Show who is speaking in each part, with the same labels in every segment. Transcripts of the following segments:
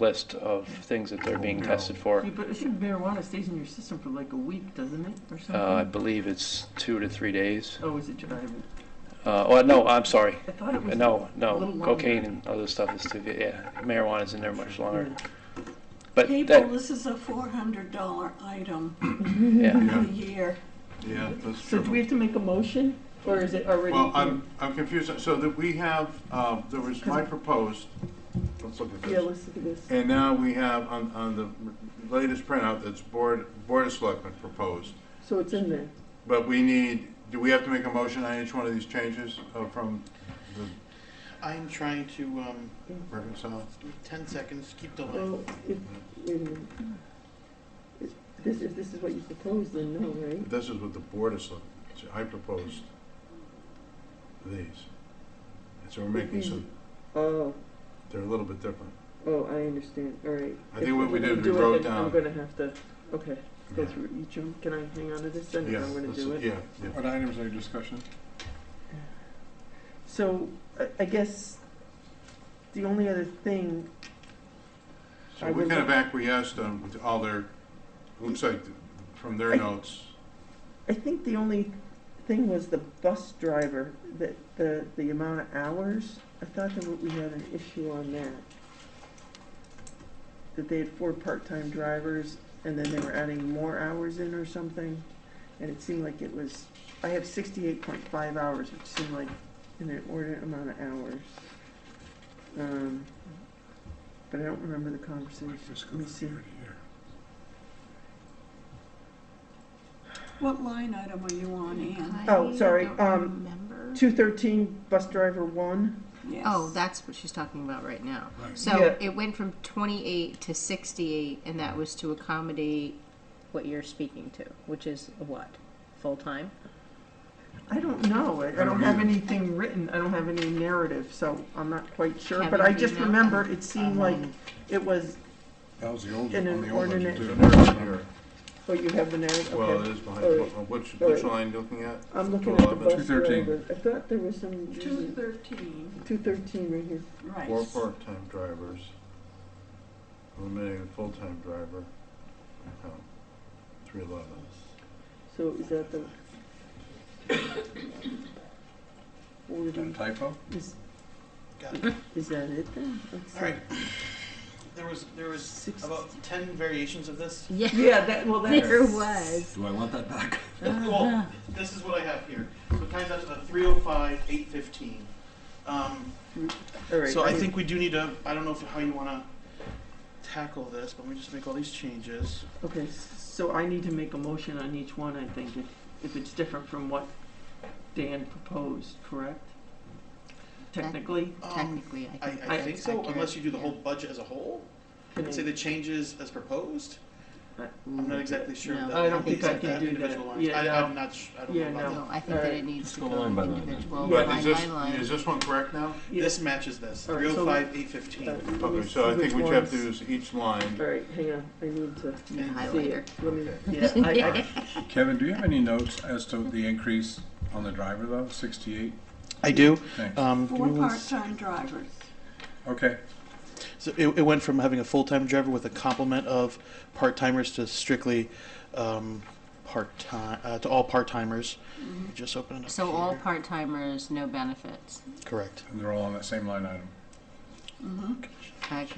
Speaker 1: list of things that they're being
Speaker 2: No.
Speaker 1: tested for.
Speaker 3: Yeah, but I think marijuana stays in your system for like a week, doesn't it, or something?
Speaker 1: Uh, I believe it's two to three days.
Speaker 3: oh, is it? I,
Speaker 1: Uh, oh, no, I'm sorry. Uh,
Speaker 3: I thought it was.
Speaker 1: No,
Speaker 3: A little
Speaker 1: no,
Speaker 3: longer.
Speaker 1: cocaine and other stuff is too, yeah, marijuana's in there much longer.
Speaker 3: Yeah.
Speaker 1: But
Speaker 4: People,
Speaker 1: that,
Speaker 4: this is a four hundred dollar item
Speaker 1: yeah,
Speaker 4: a
Speaker 2: Yeah,
Speaker 4: year.
Speaker 2: yeah, that's
Speaker 3: So do we
Speaker 2: true.
Speaker 3: have to make a motion, or is it already?
Speaker 2: Well, I'm, I'm confused, so that we have, um, there was my proposed, let's look at
Speaker 3: Yeah,
Speaker 2: this.
Speaker 3: let's look at this.
Speaker 2: And now we have on, on the latest printout, that's Board, Board of Selectmen proposed.
Speaker 3: So it's in there.
Speaker 2: But we need, do we have to make a motion on each one of these changes uh, from the
Speaker 5: I'm trying to, um,
Speaker 2: reconcile?
Speaker 5: give me ten seconds, keep delaying.
Speaker 3: Well, if, wait a minute. If This, if this is what you propose, then no, right?
Speaker 2: This is what the Board of Selectmen, so I proposed these. And so we're making
Speaker 3: Mm-hmm.
Speaker 2: some,
Speaker 3: Oh,
Speaker 2: they're a little bit different.
Speaker 3: oh, I understand, all right.
Speaker 2: I think
Speaker 3: If
Speaker 2: what we did,
Speaker 3: can
Speaker 2: we
Speaker 3: do it,
Speaker 2: wrote
Speaker 3: then I'm
Speaker 2: down-
Speaker 3: gonna have to, okay, go
Speaker 2: Yeah.
Speaker 3: through each of them, can I hang on to this then, and
Speaker 2: Yeah,
Speaker 3: I'm gonna
Speaker 2: let's-
Speaker 3: do it?
Speaker 2: Yeah, yeah.
Speaker 6: What items under discussion?
Speaker 3: So, I, I guess, the only other thing,
Speaker 2: So
Speaker 3: I
Speaker 2: we
Speaker 3: would
Speaker 2: kind of
Speaker 3: like-
Speaker 2: acquiesced on to all their, looks like th- from their
Speaker 3: I-
Speaker 2: notes.
Speaker 3: I think the only thing was the bus driver, that, the, the amount of hours. I thought that we had an issue on that. That they had four part-time drivers, and then they were adding more hours in or something. And it seemed like it was, I have sixty-eight point five hours, which seemed like an inordinate amount of hours. Um, But I don't remember the conversation. Let me see.
Speaker 4: What line item are you on, Ann?
Speaker 3: Oh, sorry,
Speaker 7: I don't
Speaker 3: um,
Speaker 7: remember.
Speaker 3: Two thirteen, bus driver one,
Speaker 4: Yes.
Speaker 7: Oh, that's what she's talking about right now.
Speaker 6: Right.
Speaker 3: Yeah.
Speaker 7: So it went from twenty-eight to sixty-eight, and that was to accommodate what you're speaking to, which is what? Full-time?
Speaker 3: I don't know. I, I don't have anything written. I don't have any narrative, so I'm not quite sure.
Speaker 7: Have
Speaker 3: But I
Speaker 7: you
Speaker 3: just
Speaker 7: emailed
Speaker 3: remember
Speaker 7: them?
Speaker 3: it seemed
Speaker 5: Um,
Speaker 3: like
Speaker 7: Um,
Speaker 3: it was,
Speaker 6: That was the old,
Speaker 3: An
Speaker 6: on the old one. you
Speaker 3: inordinate-
Speaker 2: There's a note
Speaker 6: did.
Speaker 2: here.
Speaker 3: oh, you have the narrative?
Speaker 2: Well, it
Speaker 3: Okay.
Speaker 2: is behind,
Speaker 3: All
Speaker 2: wh-
Speaker 3: right.
Speaker 2: which,
Speaker 3: All
Speaker 2: which
Speaker 3: right.
Speaker 2: line looking at?
Speaker 3: I'm looking at the
Speaker 2: 211.
Speaker 3: bus
Speaker 6: 213.
Speaker 3: driver. I thought there was some,
Speaker 4: Two thirteen,
Speaker 3: two thirteen right here.
Speaker 4: right.
Speaker 2: Four part-time drivers, eliminating a full-time driver, Oh, three eleven.
Speaker 3: So is that the?
Speaker 6: Is that a
Speaker 3: Forty,
Speaker 6: typo?
Speaker 3: is,
Speaker 5: Got it.
Speaker 3: is that it then? Let's see.
Speaker 5: All right. There was, there was
Speaker 3: Six-
Speaker 5: about ten variations of this.
Speaker 3: Yeah, that, well,
Speaker 7: There
Speaker 3: that's,
Speaker 7: was.
Speaker 6: Do I want that back?
Speaker 5: Well, this is what I have here. So it times out to three oh five, eight fifteen. Um,
Speaker 3: all right.
Speaker 5: so I think we do need to, I don't know if, how you wanna tackle this, but let me just make all these changes.
Speaker 3: Okay, so I need to make a motion on each one, I think, if, if it's different from what Dan proposed, correct? Technically?
Speaker 5: Um,
Speaker 7: Technically, I
Speaker 5: I,
Speaker 7: think.
Speaker 5: I
Speaker 7: that's
Speaker 5: think so,
Speaker 7: accurate.
Speaker 5: unless you do the whole budget as a whole,
Speaker 3: can I-
Speaker 5: and say the changes as proposed. I'm not exactly sure.
Speaker 7: Mm-hmm. No.
Speaker 5: that
Speaker 7: I
Speaker 5: that
Speaker 7: don't think
Speaker 5: looks
Speaker 7: I
Speaker 5: at
Speaker 3: can do that.
Speaker 5: individual lines.
Speaker 3: Yeah,
Speaker 5: I, I'm
Speaker 3: no.
Speaker 5: not, sh- I don't
Speaker 3: Yeah,
Speaker 5: know about
Speaker 7: No,
Speaker 5: that.
Speaker 7: I think that
Speaker 3: Alright.
Speaker 7: it needs to
Speaker 6: go
Speaker 7: go
Speaker 6: line by line.
Speaker 7: individual,
Speaker 3: Yeah.
Speaker 2: But
Speaker 7: line
Speaker 2: is
Speaker 7: by
Speaker 2: this, is
Speaker 7: line.
Speaker 2: this one correct now?
Speaker 3: Yeah.
Speaker 5: This matches this,
Speaker 3: All right,
Speaker 5: three
Speaker 3: so uh,
Speaker 5: oh five, eight fifteen.
Speaker 2: Okay, so I think what you have to do is each line,
Speaker 3: All right, hang on, I need to
Speaker 7: You
Speaker 3: see
Speaker 7: highlighter.
Speaker 3: it, let me,
Speaker 2: Okay.
Speaker 3: yeah, I,
Speaker 6: Kevin, do you have any notes as to the increase on the driver though, sixty-eight?
Speaker 5: I do.
Speaker 6: Thanks.
Speaker 5: Um, give
Speaker 4: Four
Speaker 5: me one s-
Speaker 4: part-time drivers.
Speaker 6: Okay,
Speaker 5: so it, it went from having a full-time driver with a complement of part-timers to strictly, um, part-time, uh, to all part-timers.
Speaker 3: Mm-hmm.
Speaker 5: Just open it up
Speaker 7: So all
Speaker 5: here.
Speaker 7: part-timers, no benefits.
Speaker 5: Correct.
Speaker 6: and they're all on that same line item.
Speaker 4: Mm-hmm,
Speaker 7: Okay,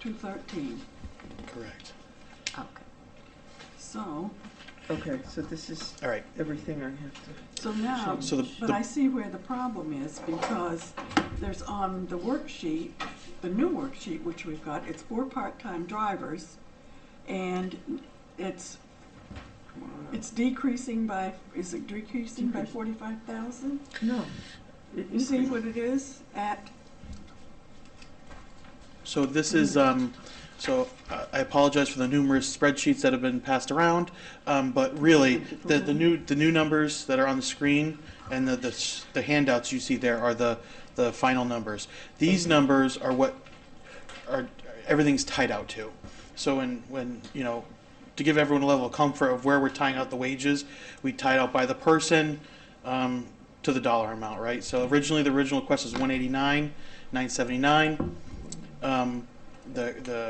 Speaker 4: two thirteen.
Speaker 5: Correct.
Speaker 7: okay.
Speaker 4: So,
Speaker 3: I, okay, so this is
Speaker 5: All right.
Speaker 3: everything I have to,
Speaker 4: so now,
Speaker 5: Um, So the,
Speaker 4: but I
Speaker 5: the
Speaker 4: see where the problem is because there's on the worksheet, the new worksheet which we've got, it's four part-time drivers and it's, it's decreasing by, is it decreasing by forty-five thousand?
Speaker 3: no. It
Speaker 4: You see
Speaker 3: increased.
Speaker 4: what it is at,
Speaker 5: so this is um, so uh, I- I apologize for the numerous spreadsheets that have been passed around, um, but really the, the new the new numbers that are on the screen and the the, s- the handouts you see there are the the final numbers. These numbers are what are everything's tied out to. So when when you know to give everyone a level of comfort of where we're tying out the wages, we tied out by the person um, to the dollar amount, right? So originally the original request was 189, 979. Um, the the